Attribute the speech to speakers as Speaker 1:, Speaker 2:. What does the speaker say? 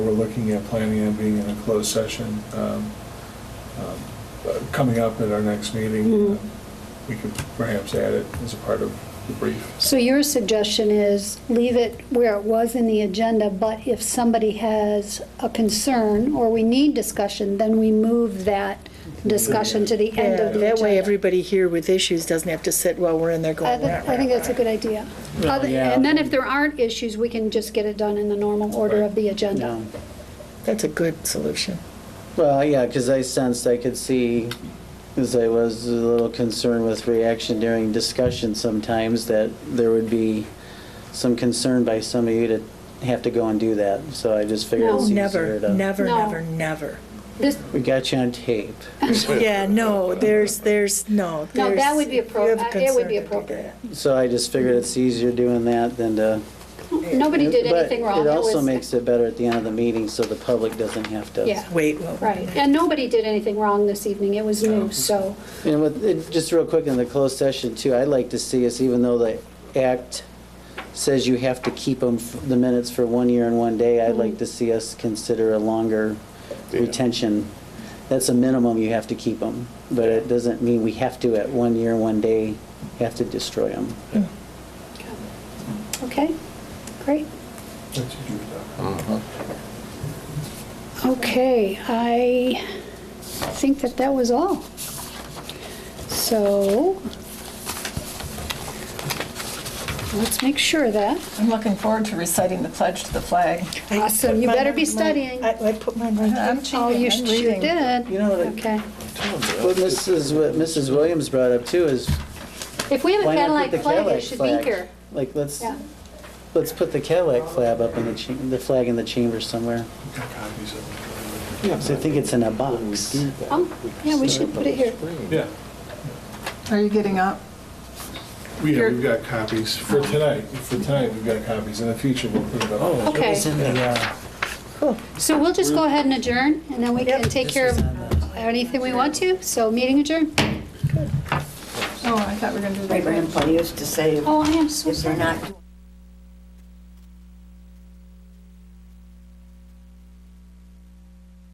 Speaker 1: we're looking at planning on being in a closed session, um, um, uh, coming up at our next meeting,
Speaker 2: Mhm.
Speaker 3: Mm-hmm.
Speaker 1: um, we could perhaps add it as a part of the brief.
Speaker 2: So your suggestion is leave it where it was in the agenda, but if somebody has a concern or we need discussion, then we move that discussion to the end
Speaker 3: Yeah,
Speaker 2: of the
Speaker 3: That way,
Speaker 2: agenda.
Speaker 3: everybody here with issues doesn't have to sit while we're in there
Speaker 2: I
Speaker 3: going,
Speaker 2: thi- I think that's a good idea.
Speaker 4: Well,
Speaker 2: Other-
Speaker 4: yeah.
Speaker 2: And then if there aren't issues, we can just get it done in the normal order of the agenda.
Speaker 4: No.
Speaker 3: that's a good solution.
Speaker 4: Well, yeah, because I sensed, I could see, because I was a little concerned with reaction during discussion sometimes, that there would be some concern by some of you to have to go and do that. So I just figured it's
Speaker 3: Never,
Speaker 4: easier to.
Speaker 3: never,
Speaker 2: No.
Speaker 3: never, never.
Speaker 2: This,
Speaker 4: We got you on tape.
Speaker 3: Yeah, no, there's, there's, no.
Speaker 2: No, that
Speaker 3: there's-
Speaker 2: would be
Speaker 3: you have a
Speaker 2: appro- uh, it would be
Speaker 3: concern to do
Speaker 2: appropriate.
Speaker 3: that.
Speaker 4: So I just figured it's easier doing that than to.
Speaker 2: nobody did
Speaker 4: But
Speaker 2: anything wrong.
Speaker 4: It also
Speaker 2: was-
Speaker 4: makes it better at the end of the meeting, so the public doesn't have to.
Speaker 2: Yeah.
Speaker 3: Wait, well.
Speaker 2: Right, and nobody did anything wrong this evening, it was new, so,
Speaker 4: And with, it- just real quick in the closed session too, I'd like to see us, even though the act says you have to keep them, the minutes for one year and one day, I'd like to see us consider a longer retention. That's a minimum you have to keep them, but it doesn't mean we have to at one year, one day, have to destroy them.
Speaker 2: okay, great. Uh-huh. Okay, I think that that was all. So, let's make sure that,
Speaker 5: I'm looking forward to reciting the pledge to the flag.
Speaker 3: I
Speaker 2: Awesome,
Speaker 3: put
Speaker 2: you
Speaker 3: my-
Speaker 2: better be
Speaker 3: my-
Speaker 2: studying.
Speaker 3: I I put my mind.
Speaker 5: I'm cheating,
Speaker 2: oh,
Speaker 5: I'm
Speaker 2: you sh- you
Speaker 5: reading.
Speaker 2: did.
Speaker 4: You know what I-
Speaker 2: Okay.
Speaker 4: What Mrs., what Mrs. Williams brought up too is
Speaker 2: If we have a
Speaker 4: why not
Speaker 2: Cadillac
Speaker 4: put the
Speaker 2: flag, it
Speaker 4: Cadillac
Speaker 2: should be here.
Speaker 4: flag? Like, let's,
Speaker 2: Yeah.
Speaker 4: let's put the Cadillac flag up in the, cha- the flag in the chamber somewhere. Because I think it's in a box.
Speaker 2: Um, Yeah, we should put it here.
Speaker 1: Yeah,
Speaker 5: Are you getting up?
Speaker 1: we, yeah, we've got copies for tonight, for tonight, we've got copies, in the future, we'll put it up.
Speaker 2: Oh, Okay. So we'll just go ahead and adjourn, and then we can take care of anything we want to, so meeting adjourned.
Speaker 5: Oh, I thought we were going to do that.
Speaker 6: My grandpa used to say,
Speaker 2: Oh, I am so
Speaker 6: if they're
Speaker 2: sorry.
Speaker 6: not